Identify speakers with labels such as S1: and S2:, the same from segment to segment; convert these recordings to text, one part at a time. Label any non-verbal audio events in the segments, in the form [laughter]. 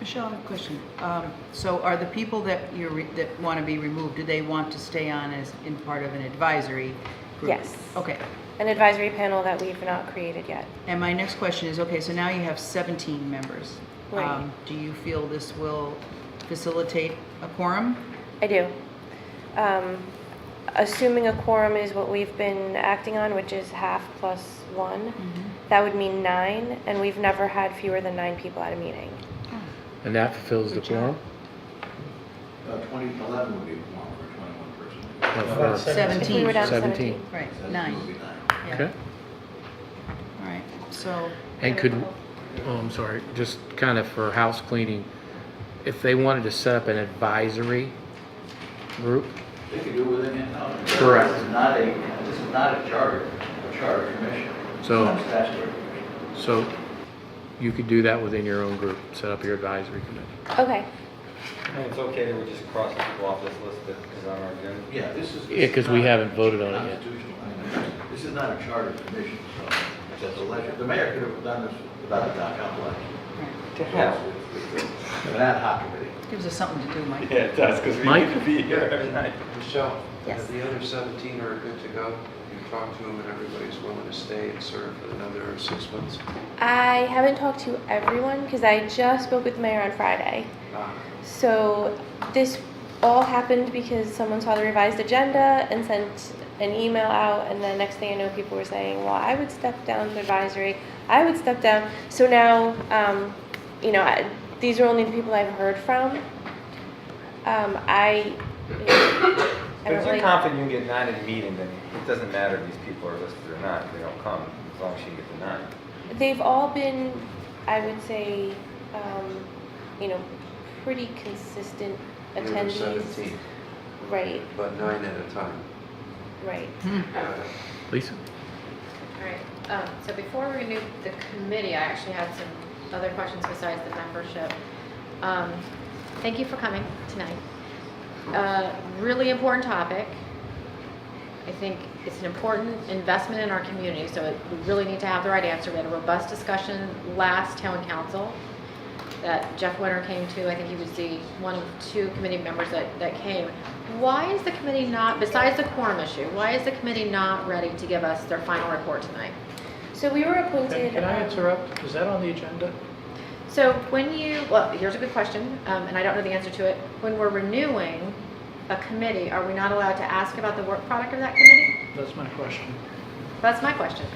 S1: Michelle, I have a question. Um, So are the people that you're, re- that want to be removed, do they want to stay on as, in part of an advisory group?
S2: Yes.
S1: Okay.
S2: An advisory panel that we've not created yet.
S1: And my next question is, okay, so now you have 17 members.
S2: Right.
S1: Um, Do you feel this will facilitate a quorum?
S2: I do. Um, Assuming a quorum is what we've been acting on, which is half plus one, that would mean nine, and we've never had fewer than nine people at a meeting.
S3: And that fulfills the quorum?
S4: Uh, 2011 would be a quorum for 21 person.
S3: No, for-
S2: If we were
S1: 17,
S2: down to
S3: Seventeen.
S2: 17.
S1: right,
S4: So that's
S1: nine.
S4: gonna be nine.
S1: Yeah.
S3: Okay.
S1: All right, so,
S3: And could, oh, I'm sorry, just kind of for house cleaning, if they wanted to set up an advisory group,
S4: They could do it within in-house.
S3: Correct.
S4: This is not a, this is not a charter, a charter commission.
S3: So-
S4: It's not a statutory commission.
S3: so you could do that within your own group, set up your advisory committee.
S2: Okay,
S5: And it's okay that we just cross people off this list that is on our agenda.
S4: Yeah, this is.
S3: Yeah, 'cause we haven't voted on it yet.
S4: Constitutional. This is not a charter commission, so it's just election. The mayor could have done this without a town election.
S1: right.
S5: To hell.
S4: An ad hoc committee.
S1: gives us something to do, Mike.
S5: Yeah, it does, because we
S3: Mike?
S5: need to be here every night.
S6: Michelle?
S2: Yes.
S6: The other 17 are good to go. You've talked to them and everybody's willing to stay and serve for another six months.
S2: I haven't talked to everyone because I just spoke with the mayor on Friday.
S6: Ah,
S2: So this all happened because someone saw the revised agenda and sent an email out, and the next thing I know, people were saying, "Well, I would step down to advisory. I would step down." So now, um, you know, I, these are only the people I've heard from. Um, I, I
S5: But
S2: don't
S5: if you're
S2: really.
S5: confident you can get nine at a meeting, then it doesn't matter if these people are listed or not, they don't come, as long as you get the nine.
S2: They've all been, I would say, um, you know, pretty consistent
S6: the other
S2: attendees.
S6: 17,
S2: Right,
S6: but nine at a time.
S2: right.
S1: Hmm.
S6: Uh,
S3: Lisa?
S7: All right, um, so before we renew the committee, I actually had some other questions besides the membership. Um, Thank you for coming tonight. Uh, Really important topic. I think it's an important investment in our community, so it- we really need to have the right answer. We had a robust discussion last town council that Jeff Winter came to. I think he was the one of two committee members that, that came. Why is the committee not, besides the quorum issue, why is the committee not ready to give us their final report tonight?
S2: So we were appointed.
S8: Can I
S2: um,
S8: interrupt? Is that on the agenda?
S7: So when you, well, here's a good question, um, and I don't know the answer to it. When we're renewing a committee, are we not allowed to ask about the work product of that committee?
S8: That's my question.
S7: That's my question.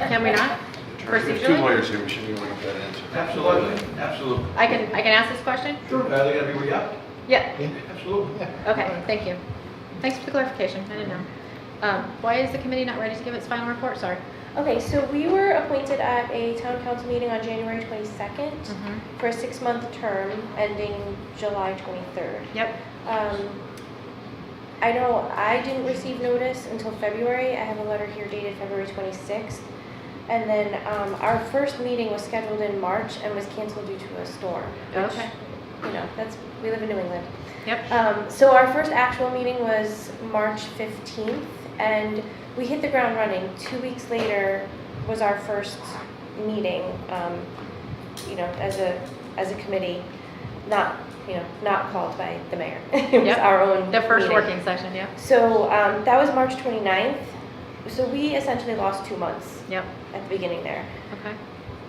S7: Can we not?
S6: Two
S7: Procedurally?
S6: lawyers here, we should be able to get that answer.
S4: Absolutely, absolutely.
S7: I can, I can ask this question?
S4: Sure, uh, they gotta be re-upped.
S7: Yeah,
S4: Absolutely.
S7: okay, thank you. Thanks for the clarification, I didn't know. Um, Why is the committee not ready to give its final report? Sorry.
S2: Okay, so we were appointed at a town council meeting on January 22nd
S8: Mm-hmm.
S2: for a six-month term ending July 23rd.
S7: Yep.
S2: Um, I know I didn't receive notice until February. I have a letter here dated February 26th. And then um, our first meeting was scheduled in March and was canceled due to a storm. which,
S7: Okay.
S2: You know, that's, we live in New England.
S7: Yep.
S2: Um, so our first actual meeting was March 15th, and we hit the ground running. Two weeks later was our first meeting, um, you know, as a as a committee, not you know not called by the mayor. [laughs] it was
S7: Yep.
S2: our own
S7: The first
S2: meeting.
S7: working session, yep.
S2: So um, that was March 29th. So we essentially lost two months
S7: Yep,
S2: at the beginning there.
S7: okay.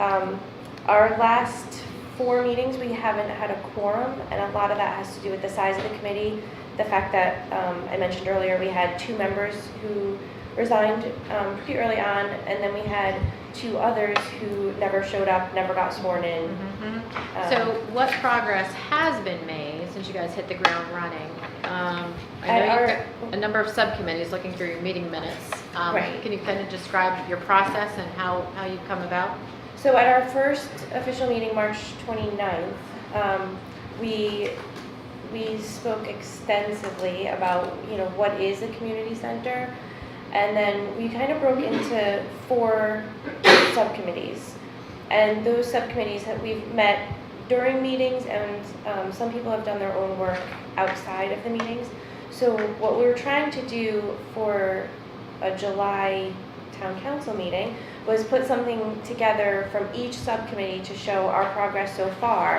S2: Um, Our last four meetings, we haven't had a quorum, and a lot of that has to do with the size of the committee. The fact that, um, I mentioned earlier, we had two members who resigned um, pretty early on, and then we had two others who never showed up, never got sworn in.
S7: Mhm.
S2: Um,
S7: So what progress has been made since you guys hit the ground running? Um,
S2: At
S7: I know
S2: our-
S7: you've got a number of subcommittees looking through your meeting minutes. Um,
S2: Right.
S7: Can you kind of describe your process and how, how you've come about?
S2: So at our first official meeting, March 29th, um, we, we spoke extensively about, you know, what is a community center? And then we kind of broke into four subcommittees. And those subcommittees that we've met during meetings and um, some people have done their own work outside of the meetings. So what we were trying to do for a July town council meeting was put something together from each subcommittee to show our progress so far